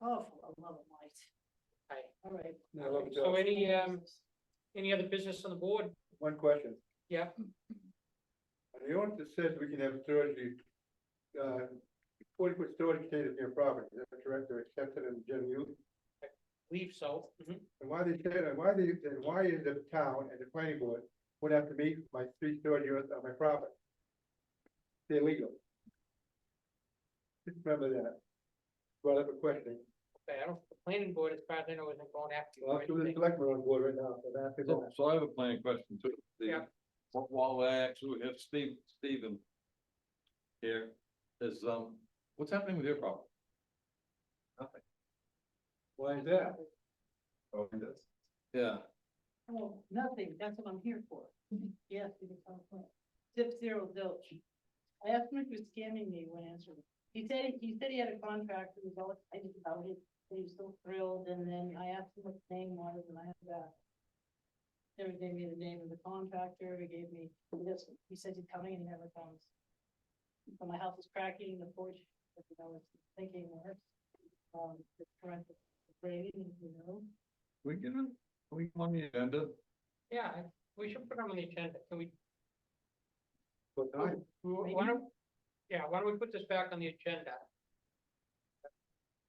Awful, I Oh, love them light. Right. All right. I love it, So Joe. any, um, any other business on the board? One question. Yeah. Are The ordinance that says we can have storage, uh, forty foot storage containers near property, is that correct, or accepted in general use? Leave so. Mhm. And why they said, and why they, and why is the town and the planning board would have to meet my three storage units on my property? They're legal. Just remember that. Brought up a question, Okay, I don't, the planning board, as far as I know, isn't going after you. Well, or I'm sure the anything. selectmen are on board right now, so that's the So goal. so I have a planning question too. The- Yeah. wh- While I actually have Steve, Stephen here, is, um, what's happening with your problem? Why is that? Oh, it is. Yeah, Oh, nothing, that's what I'm here for. Mm-hmm. Yes, you can call it. Zip zero zilch. I asked him if he was scamming me when answering. He said, he- he said he had a contract and was all excited about it, and he was so thrilled, and then I asked him what the name was, and I had that. Then he gave me the name of the contractor, he gave me this, he said he's coming and he never comes. So my house is cracking, the porch, you know, it's thinking, um, the current rating, you know. we get it, we get on the agenda, Yeah, I- we should put them on the agenda. Can we, But I, wh- why don't, yeah, why don't we put this back on the agenda?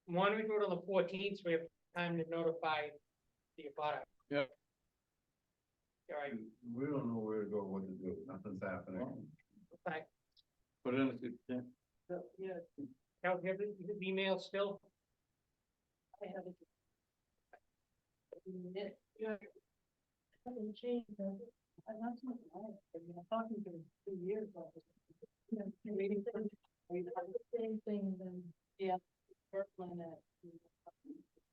Why don't we do it on the fourteenth, so we have time to notify the abutter? Yeah. All right, We don't know where to go, what to do, nothing's happening. okay. put it in, the yeah, So, yeah, Now, you have the you have the email still? I haven't. It, yeah. Haven't changed, has it? I'm not talking, I've been talking to him for years, but. You know, you're reading things, are you having the same thing then? Yeah. Berkman at.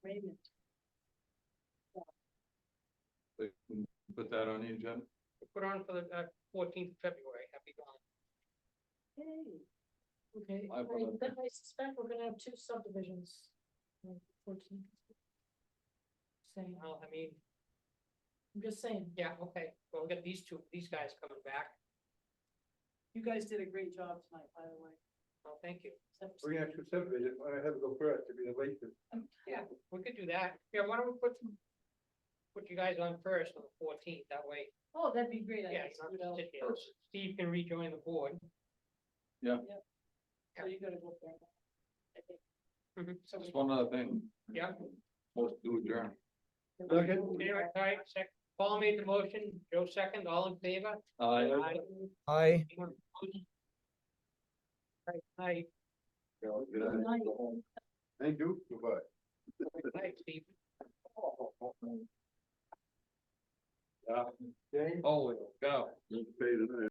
Raymond. like, we put that on the agenda. Put on for the uh, fourteenth of February, happy going. Hey. Okay, I I- apologize. then I suspect we're gonna have two subdivisions. on 14th. Same, Well, I mean, I'm just saying, yeah, okay, well, we got these two, these guys coming back, You guys did a great job tonight, by the way. well, thank you. Except- we're gonna have to subdivision, I have to go first to be the latest. Um, Yeah, we could do that. Yeah, why don't we put some, put you guys on first on the fourteenth, that way, Oh, that'd be great, I yeah, guess, you you don't have know, to sit here. Steve can rejoin the board. so you gotta go there. I think. Mhm. So Just one other thing, Yeah, most do adjourn. we- Okay. anyway, all right, sec, Paul made the motion, Joe second, all in favor? I, Aye. Anyone opposed? All right, Aye, Thank you, goodbye. aye, Steve. oh, go. Let's pay tonight.